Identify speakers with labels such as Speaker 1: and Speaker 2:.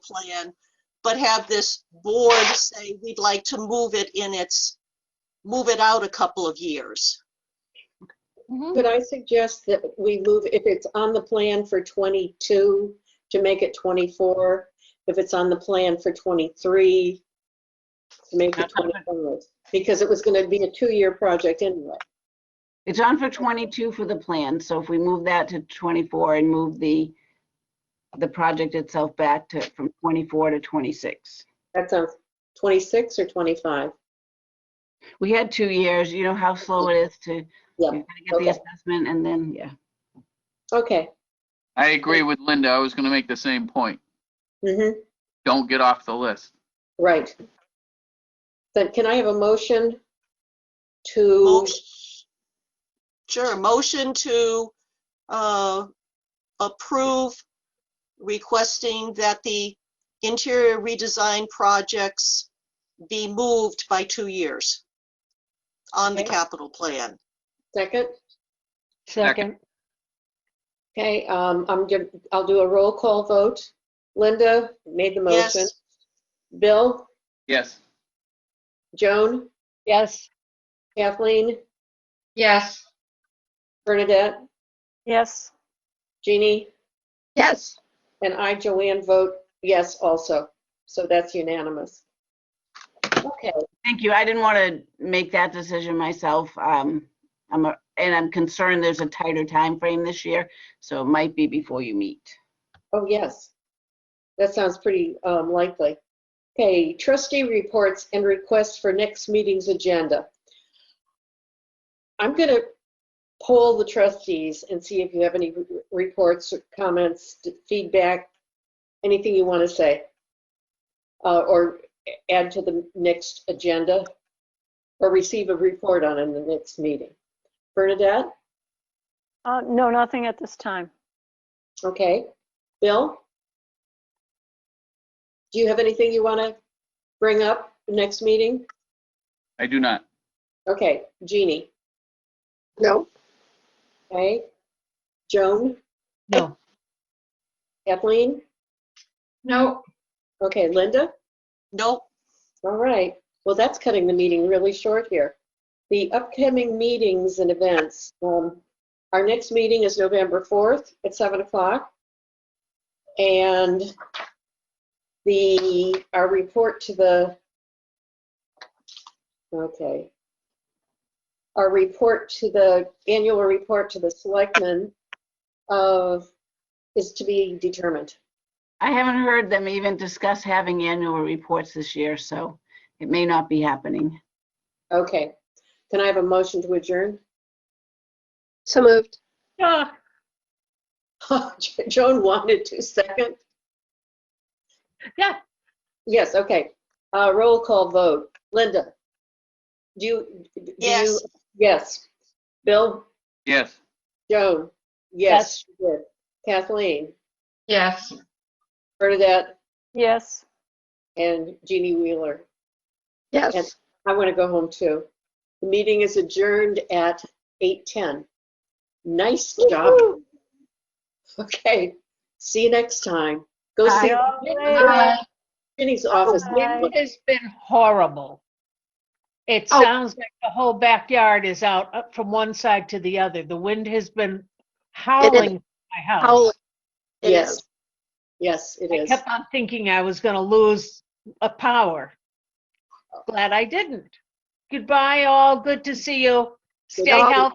Speaker 1: plan, but have this board say, we'd like to move it in its, move it out a couple of years.
Speaker 2: Mm-hmm.
Speaker 3: Could I suggest that we move, if it's on the plan for 22, to make it 24? If it's on the plan for 23, to make it 25? Because it was going to be a two-year project anyway.
Speaker 4: It's on for 22 for the plan, so if we move that to 24 and move the, the project itself back to, from 24 to 26.
Speaker 3: That sounds 26 or 25?
Speaker 4: We had two years, you know how slow it is to,
Speaker 3: Yeah,
Speaker 4: you've got to
Speaker 3: okay.
Speaker 4: get the assessment and then, yeah.
Speaker 3: Okay.
Speaker 5: I agree with Linda. I was going to make the same point.
Speaker 3: Mm-hmm.
Speaker 5: Don't get off the list.
Speaker 3: Right. Then can I have a motion to,
Speaker 1: Motion- Sure, motion to uh, approve requesting that the interior redesign projects be moved by two years on the
Speaker 3: Okay.
Speaker 1: capital plan.
Speaker 3: second?
Speaker 5: Second.
Speaker 3: Okay, um, I'm, gonna- I'll do a roll call vote. Linda made the
Speaker 1: Yes.
Speaker 3: motion. Bill?
Speaker 5: Yes.
Speaker 3: Joan?
Speaker 2: Yes.
Speaker 3: Kathleen?
Speaker 2: Yes.
Speaker 3: Bernadette?
Speaker 2: Yes.
Speaker 3: Jeannie?
Speaker 2: Yes.
Speaker 3: And I, Joanne, vote yes also. So that's unanimous. Okay,
Speaker 4: Thank you. I didn't want to make that decision myself. Um, I'm, a- and I'm concerned there's a tighter time frame this year, so it might be before you meet.
Speaker 3: oh, yes. That sounds pretty um, likely. Okay, trustee reports and requests for next meeting's agenda. I'm going to poll the trustees and see if you have any re- reports, comments, feedback, anything you want to say. uh, Or add to the next agenda, or receive a report on in the next meeting. Bernadette?
Speaker 6: Uh, No, nothing at this time.
Speaker 3: Okay. Bill? Do you have anything you want to bring up next meeting?
Speaker 5: I do not.
Speaker 3: Okay, Jeannie?
Speaker 2: No.
Speaker 3: Okay. Joan?
Speaker 2: No.
Speaker 3: Kathleen?
Speaker 2: No.
Speaker 3: Okay, Linda?
Speaker 1: Nope,
Speaker 3: All right. Well, that's cutting the meeting really short here. The upcoming meetings and events. um, Our next meeting is November 4th at 7 o'clock. And the, our report to the, okay. Our report to the, annual report to the selectmen of, is to be determined.
Speaker 4: I haven't heard them even discuss having annual reports this year, so it may not be happening.
Speaker 3: Okay. Can I have a motion to adjourn?
Speaker 2: So moved.
Speaker 6: Ah,
Speaker 3: Joan wanted to second?
Speaker 6: Yeah.
Speaker 3: Yes, okay. Uh, Roll call vote. Linda? Do you? do you-
Speaker 1: yes.
Speaker 3: Yes. Bill?
Speaker 5: Yes.
Speaker 3: Joan? Yes. she did. Kathleen?
Speaker 2: Yes.
Speaker 3: Bernadette?
Speaker 6: yes.
Speaker 3: And Jeannie Wheeler?
Speaker 2: Yes.
Speaker 3: I want to go home too. The meeting is adjourned at 8:10. Nice job. Okay, see you next time. Go
Speaker 4: Bye.
Speaker 3: see
Speaker 6: Bye.
Speaker 3: Ginny's office.
Speaker 6: Bye.
Speaker 7: It has been horrible. It
Speaker 2: Oh.
Speaker 7: sounds like the whole backyard is out up from one side to the other. The wind has been howling my house.
Speaker 2: Howling. It
Speaker 3: Yes.
Speaker 2: is.
Speaker 3: Yes, it
Speaker 7: I
Speaker 3: is.
Speaker 7: kept on thinking I was gonna lose a power. Glad I didn't. Goodbye all, good to see you. Stay
Speaker 3: Goodbye.
Speaker 7: healthy.